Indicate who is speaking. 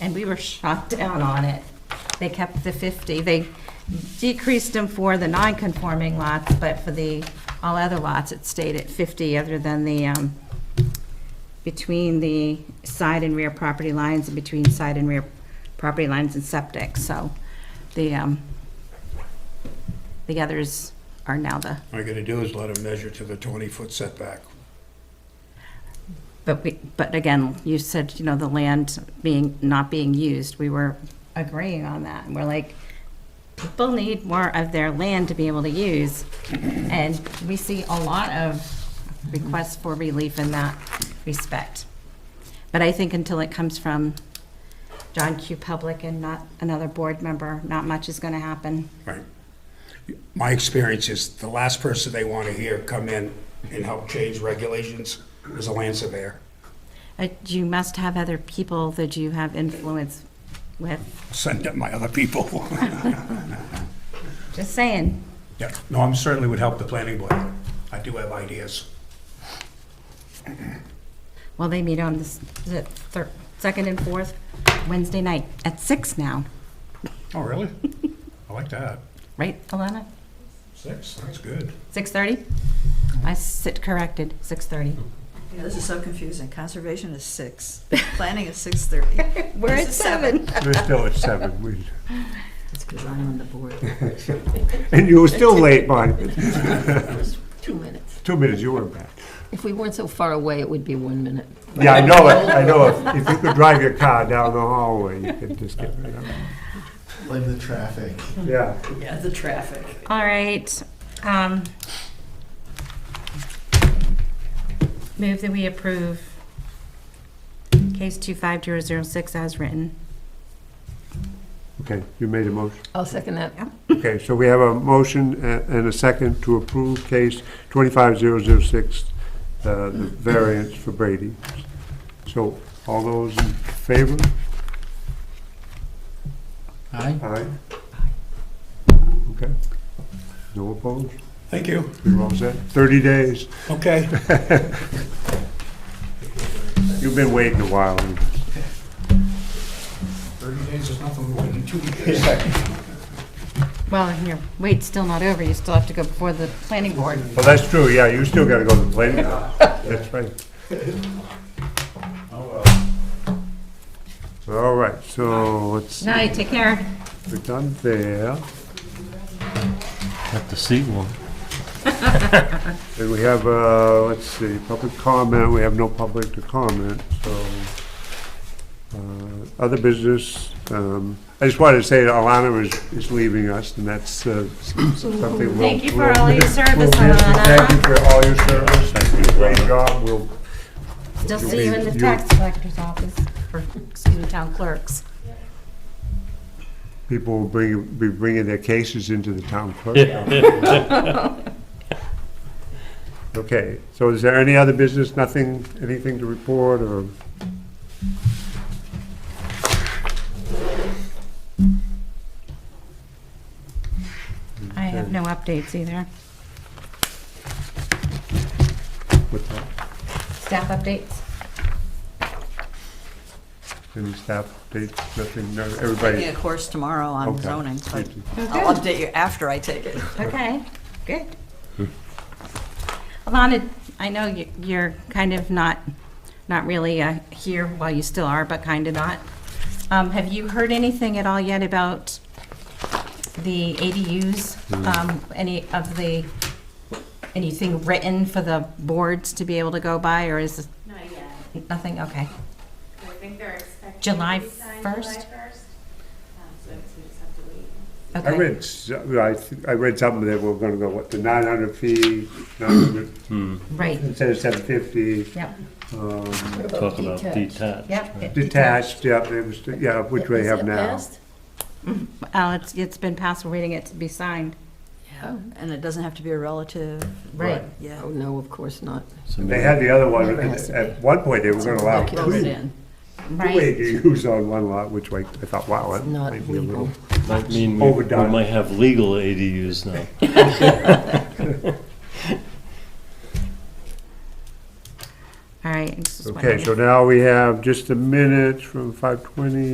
Speaker 1: and we were shot down on it. They kept the 50. They decreased them for the non-conforming lots, but for the, all other lots, it stayed at 50, other than the, um, between the side and rear property lines and between side and rear property lines and septic. So the, um, the others are now the,
Speaker 2: All you're gonna do is let them measure to the twenty-foot setback.
Speaker 1: but we, but again, you said, you know, the land being, not being used, we were agreeing on that. And we're like, people need more of their land to be able to use. And we see a lot of requests for relief in that respect. But I think until it comes from John Q. Public and not another board member, not much is gonna happen.
Speaker 2: Right. My experience is the last person they want to hear come in and help change regulations is a land surveyor.
Speaker 1: Uh, You must have other people that you have influence with.
Speaker 2: Send up my other people.
Speaker 1: Just saying.
Speaker 2: Yeah, no, I'm certainly would help the planning board. I do have ideas.
Speaker 1: Well, they meet on the s- the thir- second and fourth Wednesday night at six now,
Speaker 2: Oh, really? I like that.
Speaker 1: right, Alana?
Speaker 2: Six, that's good.
Speaker 1: Six thirty? I sit corrected, six thirty.
Speaker 3: Yeah, this is so confusing. Conservation is six, planning is six thirty.
Speaker 1: We're
Speaker 3: This
Speaker 1: at
Speaker 3: is
Speaker 1: seven.
Speaker 4: We're still at seven. We-
Speaker 3: That's because I'm on the board.
Speaker 4: And you were still late, Bonnie.
Speaker 5: Two minutes.
Speaker 4: Two minutes, you were back.
Speaker 5: If we weren't so far away, it would be one minute.
Speaker 4: Yeah, I know it, I know it. If you could drive your car down the hallway, you could just get rid of it.
Speaker 6: Blame the traffic.
Speaker 4: Yeah.
Speaker 3: Yeah, the traffic.
Speaker 1: All right. um, Move that we approve case two five zero zero six as written.
Speaker 4: Okay, you made a motion.
Speaker 5: I'll second that.
Speaker 4: Okay, so we have a motion a- and a second to approve case 25006, uh, the variance for Brady. So all those in favor?
Speaker 6: Aye.
Speaker 4: Aye. Okay. No opposed?
Speaker 2: Thank you.
Speaker 4: You're all set? 30 days.
Speaker 2: Okay.
Speaker 4: You've been waiting a while.
Speaker 2: Thirty days is nothing, we're waiting two years.
Speaker 1: Well, and your wait's still not over, you still have to go before the planning board.
Speaker 4: Well, that's true, yeah, you still gotta go to the playground. That's right. All right, so let's, see.
Speaker 1: Night, take care.
Speaker 4: we're done there.
Speaker 7: Have to see one.
Speaker 4: And we have, uh, let's see, public comment, we have no public to comment, so. uh, Other business, um, I just wanted to say that Alana is, is leaving us, and that's uh, something we'll.
Speaker 1: Thank you for
Speaker 4: we'll-
Speaker 1: all your service,
Speaker 4: we'll miss you.
Speaker 1: Alana.
Speaker 4: Thank you for all your service, Thank you. great job, we'll,
Speaker 1: Still see you in the
Speaker 4: You-
Speaker 1: tax collector's office, or, excuse me, town clerk's.
Speaker 4: people will bring, be bringing their cases into the town clerk. Okay, so is there any other business, nothing, anything to report, or?
Speaker 1: I have no updates either.
Speaker 4: What's that?
Speaker 1: Staff updates?
Speaker 4: Any staff updates, nothing, no,
Speaker 3: Taking a
Speaker 4: everybody?
Speaker 3: course tomorrow on
Speaker 4: Okay.
Speaker 3: zoning, but I'll update you after I take it.
Speaker 1: Okay, good. Alana, I know you- you're kind of not, not really uh, here, well, you still are, but kind of not. Um, Have you heard anything at all yet about the ADUs?
Speaker 4: Hmm.
Speaker 1: Um, Any of the, anything written for the boards to be able to go by, or is
Speaker 8: Not yet.
Speaker 1: it nothing? Okay.
Speaker 8: I think they're expecting.
Speaker 1: July
Speaker 8: it to be
Speaker 1: 1st?
Speaker 8: signed July 1st. Um, So I guess we just have to wait.
Speaker 4: I
Speaker 1: Okay.
Speaker 4: read, s- I, th- I read something that we're gonna go, what, the nine hundred feet, nine hundred,
Speaker 7: Hmm,
Speaker 1: Right,
Speaker 4: instead of seven fifty,
Speaker 1: yep,
Speaker 4: um,
Speaker 7: Talk about detached.
Speaker 1: yep.
Speaker 4: detached, yeah, it was, yeah, which we
Speaker 5: Is
Speaker 4: have
Speaker 5: it
Speaker 4: now.
Speaker 5: passed?
Speaker 1: Uh, it's, it's been passed, we're waiting it to be signed.
Speaker 3: And it doesn't have to be a relative,
Speaker 1: Right.
Speaker 3: yeah.
Speaker 5: Oh, no, of course not.
Speaker 4: They had the other one,
Speaker 5: It has to
Speaker 4: at one point, they were gonna allow
Speaker 5: It's
Speaker 4: two, two
Speaker 5: in.
Speaker 1: Right.
Speaker 4: ADUs on one lot, which I, I thought, wow, that
Speaker 5: Not
Speaker 4: might be a
Speaker 5: legal.
Speaker 4: little.
Speaker 7: Might mean we- we
Speaker 4: Overdone.
Speaker 7: might have legal ADUs now.
Speaker 1: All right. it's just one
Speaker 4: Okay,
Speaker 1: minute.
Speaker 4: so now we have just a minute from five twenty.